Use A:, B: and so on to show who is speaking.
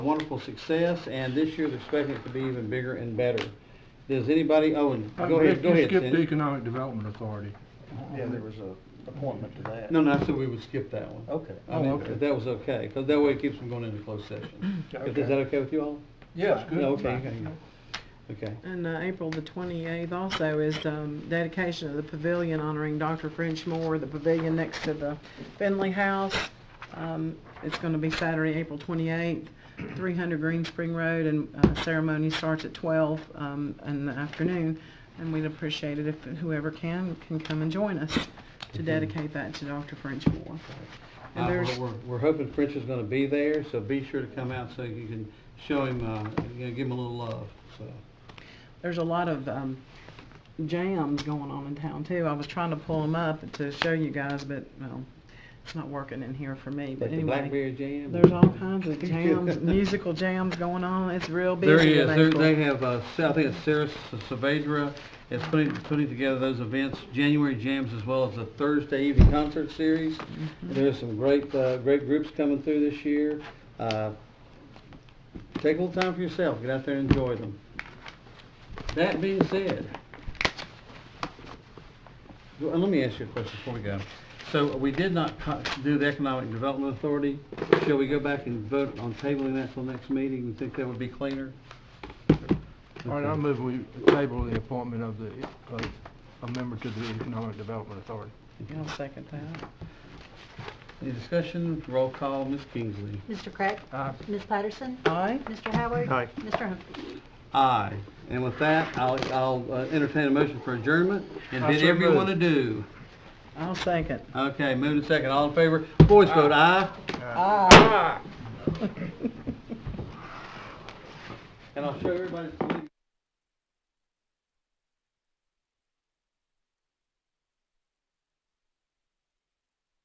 A: wonderful success, and this year they're expecting it to be even bigger and better. Does anybody, oh, and
B: Uh,
A: go ahead,
B: Rick,
A: go
B: you
A: ahead,
B: skipped the
A: Cindy.
B: Economic Development Authority.
C: Yeah, there was a appointment to that.
A: No, no, I said we would skip that one.
C: Okay.
A: I
B: Oh,
A: mean,
B: okay.
A: if that was okay, because that way it keeps them going into closed session. Is is that okay with you all?
C: Yeah,
A: Yeah, Okay, okay, okay.
D: And uh, April the 28th also is um, dedication of the pavilion honoring Dr. French Moore, the pavilion next to the Finley House. Um, It's going to be Saturday, April 28th, 300 Green Spring Road, and uh, ceremony starts at 12 um, in the afternoon. And we'd appreciate it if whoever can, can come and join us to dedicate that to Dr. French Moore. And
A: Uh,
D: there's-
A: We're, we're- we're hoping French is gonna be there, so be sure to come out so you can show him, uh, you know, give him a little love, so.
D: there's a lot of um, jams going on in town too. I was trying to pull them up to show you guys, but well, it's not working in here for me. But
A: Like the
D: anyway,
A: Blackberry Jam?
D: there's all kinds of jams, musical jams going on. It's real busy.
A: There he is,
D: in
A: There-
D: April.
A: they have, uh, Sa- I think it's Sarah S- Saavedra is putting, putting together those events, January jams as well as the Thursday evening concert series. There's some great, uh, great groups coming through this year. Uh, Take a little time for yourself, get out there and enjoy them. That being said, well, let me ask you a question before we go. So we did not co- do the Economic Development Authority. Shall we go back and vote on tabling that till next meeting? You think that would be cleaner?
B: All right, I'll
A: Okay.
B: move we table the appointment of the, of a member to the Economic Development Authority.
D: I'll second that.
A: Any discussion? Roll call, Ms. Kingsley.
E: Mr. Craig?
B: Aye.
E: Ms. Patterson?
D: Aye.
E: Mr. Howard?
B: Aye.
E: Mr. Humphrey?
A: Aye. And with that, I'll, I'll uh, entertain a motion for adjournment and
B: I
A: bid
B: so
A: everyone
B: move.
A: adieu.
D: I'll second.
A: Okay, moved and second. All in favor? Voice vote aye.
D: Aye.
A: And I'll show everybody.